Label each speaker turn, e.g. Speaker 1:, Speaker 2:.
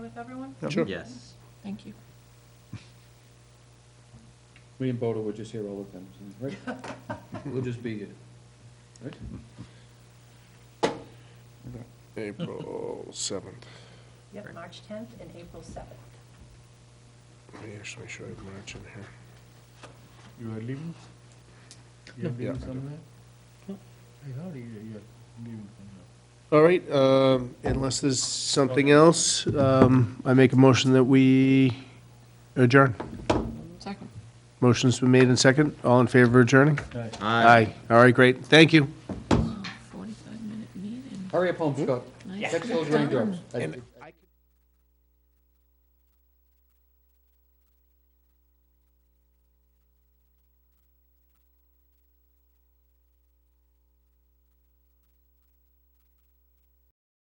Speaker 1: with everyone?
Speaker 2: Sure.
Speaker 3: Yes.
Speaker 1: Thank you.
Speaker 4: Me and Bodo were just here all the time, right? We'll just be here, right?
Speaker 2: April seventh.
Speaker 1: Yep, March 10th and April 7th.
Speaker 2: Let me actually show you March in here.
Speaker 5: You are leaving? You are
Speaker 2: Yeah.
Speaker 5: leaving somewhere? I heard you, you are leaving somewhere.
Speaker 2: All right, um, unless there's something else, um, I make a motion that we adjourn.
Speaker 1: Second.
Speaker 2: Motion's been made and second. All in favor of adjourning?
Speaker 3: Aye.
Speaker 2: All right, great. Thank you.
Speaker 1: 45-minute meeting.
Speaker 4: Hurry up home, Scott.
Speaker 1: Nice
Speaker 4: Fix those raindrops. I-
Speaker 2: And-